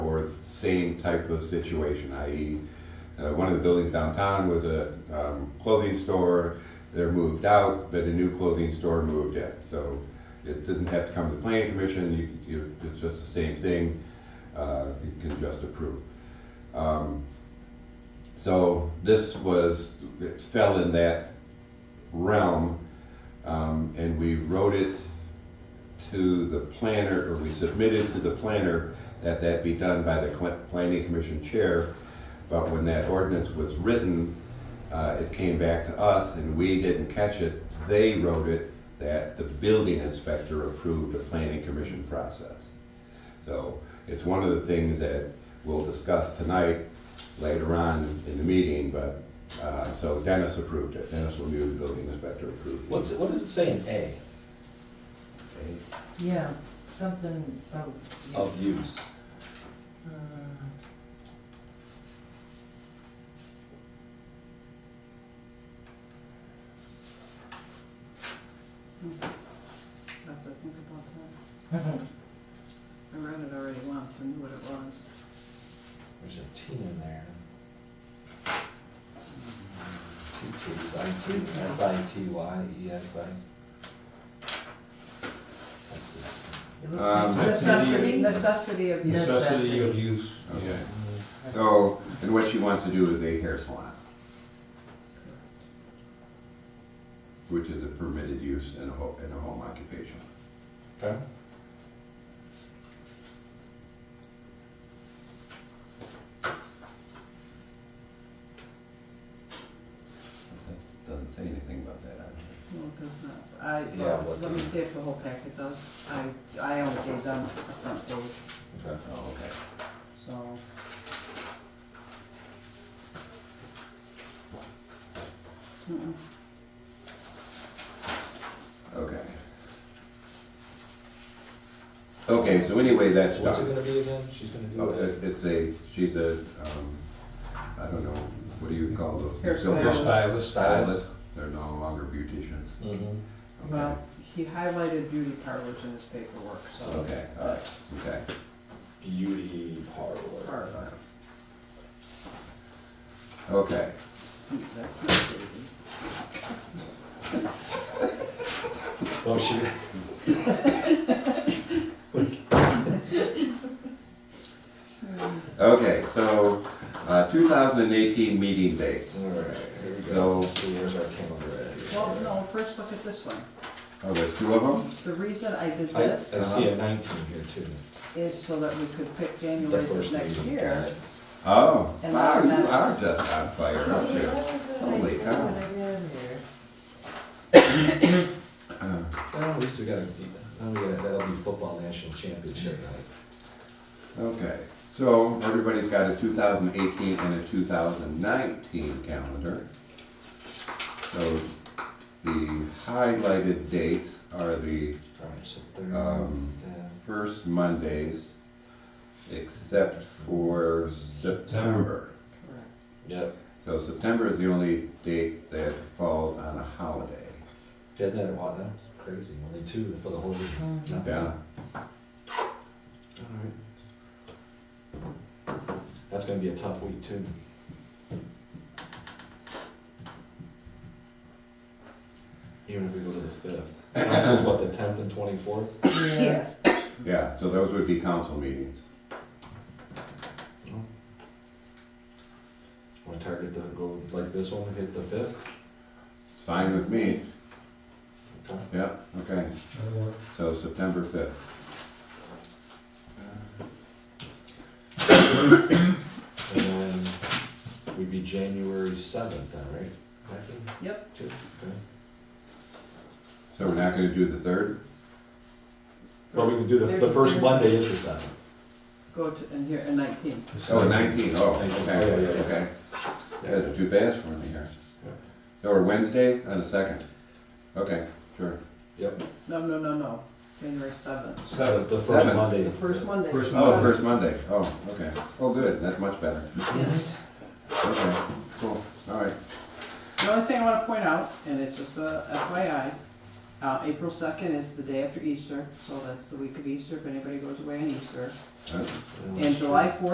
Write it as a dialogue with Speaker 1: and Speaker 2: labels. Speaker 1: same type of situation, i.e., uh, one of the buildings downtown was a um, clothing store. They're moved out, but a new clothing store moved in. So it didn't have to come to the planning commission. You, you, it's just the same thing. Uh, you can just approve. Um, so this was it fell in that realm, um, and we wrote it to the planner, or we submitted to the planner that that be done by the cl- planning commission chair. But when that ordinance was written, uh, it came back to us and we didn't catch it. They wrote it that the building inspector approved a planning commission process. So it's one of the things that we'll discuss tonight, later on in the meeting, but, uh, so Dennis approved it. Dennis Lemieux, the building inspector, approved it.
Speaker 2: What's, it- what does it say in A?
Speaker 3: Yeah, something about. you.
Speaker 2: Of use.
Speaker 3: Uh,
Speaker 4: I'll have to think about that.
Speaker 3: mhm.
Speaker 4: I read it already once and knew what it was.
Speaker 2: There's a T in there. Two T's, I T, S I T Y E S I. Let's see.
Speaker 3: It looks
Speaker 1: Um,
Speaker 3: like necessity.
Speaker 4: Necessity, necessity of use.
Speaker 5: Necessity of use,
Speaker 1: Okay.
Speaker 5: yeah.
Speaker 1: So, and what you want to do is a hair salon. Which is a permitted use in a home, in a home occupation.
Speaker 2: Okay.
Speaker 1: Doesn't say anything about that, I don't think.
Speaker 4: No, it does not. I,
Speaker 2: Yeah,
Speaker 4: well,
Speaker 2: what
Speaker 4: let me
Speaker 2: the-
Speaker 4: see if the whole packet does. I, I only gave them a front page,
Speaker 2: Okay.
Speaker 1: Oh, okay.
Speaker 4: so. Mm-mm.
Speaker 1: Oh, Okay. Okay, so anyway, that's
Speaker 2: So what's it
Speaker 1: done.
Speaker 2: gonna be again? She's gonna do
Speaker 1: Oh, it-
Speaker 2: it.
Speaker 1: It's a, she's a, um, I don't know, what do you call those?
Speaker 4: Hair
Speaker 1: Silver
Speaker 4: stylist.
Speaker 5: Stylist,
Speaker 1: Stylist, they're no longer beauticians.
Speaker 2: Mm-hmm.
Speaker 1: Okay.
Speaker 4: Well, he highlighted beauty parlors in his paperwork, so.
Speaker 1: Okay, all right, okay.
Speaker 2: Beauty parlor.
Speaker 4: Parlor,
Speaker 1: Okay,
Speaker 4: Hmm, that's not beauty.
Speaker 2: Well, she.
Speaker 1: okay, so, uh, two thousand and eighteen meeting dates.
Speaker 2: All right, here we go.
Speaker 1: So-
Speaker 2: So where's our calendar at?
Speaker 4: Well, no, first look at this one.
Speaker 1: Oh, there's two of them?
Speaker 4: The reason I did
Speaker 2: I, I
Speaker 4: this.
Speaker 2: see a nineteen here too.
Speaker 4: is so that we could pick
Speaker 2: The
Speaker 4: January
Speaker 2: first
Speaker 4: of next
Speaker 2: meeting.
Speaker 4: year.
Speaker 1: Oh,
Speaker 4: And
Speaker 1: wow,
Speaker 4: I'm
Speaker 1: you
Speaker 4: not-
Speaker 1: are just on fire, aren't you? Holy cow.
Speaker 2: Well, at least we got a, now we got, that'll be football national championship night.
Speaker 1: Okay, so everybody's got a 2018 and a 2019 calendar. So the highlighted dates are the
Speaker 2: All right, so
Speaker 1: Um,
Speaker 2: third,
Speaker 1: first Mondays, except for September.
Speaker 4: Correct.
Speaker 2: yep,
Speaker 1: So September is the only date that falls on a holiday.
Speaker 2: isn't that, wow, that's crazy, only two for the whole week.
Speaker 3: Mm.
Speaker 1: Yeah,
Speaker 2: All right. That's gonna be a tough week too. Even if we go to the fifth, Next is what, the tenth and twenty-fourth?
Speaker 3: Yeah.
Speaker 1: yeah, so those would be council meetings.
Speaker 2: Wanna target the, go like this one, hit the fifth?
Speaker 1: Fine with me,
Speaker 2: Okay.
Speaker 1: yeah, okay,
Speaker 5: Uh,
Speaker 1: so September 5th.
Speaker 2: And then we'd be January seventh then, right? Becky?
Speaker 4: Yep,
Speaker 2: Two, okay.
Speaker 1: So we're not gonna do the 3rd?
Speaker 2: Well, we can do the, the first Monday is the seventh.
Speaker 4: go to, and here, and nineteen.
Speaker 1: Oh, 19, oh,
Speaker 2: Yeah,
Speaker 1: okay,
Speaker 2: yeah, yeah.
Speaker 1: okay. Yeah, they're too fast for me here.
Speaker 2: Yeah.
Speaker 1: So we're Wednesday and the second? Okay, sure.
Speaker 2: Yep.
Speaker 4: No, no, no, no, January seventh.
Speaker 2: The,
Speaker 5: Seven.
Speaker 2: the first
Speaker 1: Seventh.
Speaker 2: Monday.
Speaker 4: The first Monday. is
Speaker 5: First
Speaker 4: the
Speaker 1: Oh,
Speaker 4: seventh.
Speaker 1: first Monday, oh, okay. Oh, good, that's much better.
Speaker 4: Yes.
Speaker 1: Okay, cool, all right.
Speaker 4: The only thing I wanna point out, and it's just a FYI, uh, April second is the day after Easter, so that's the week of Easter, if anybody goes away on Easter.
Speaker 1: Uh,
Speaker 4: And July fourth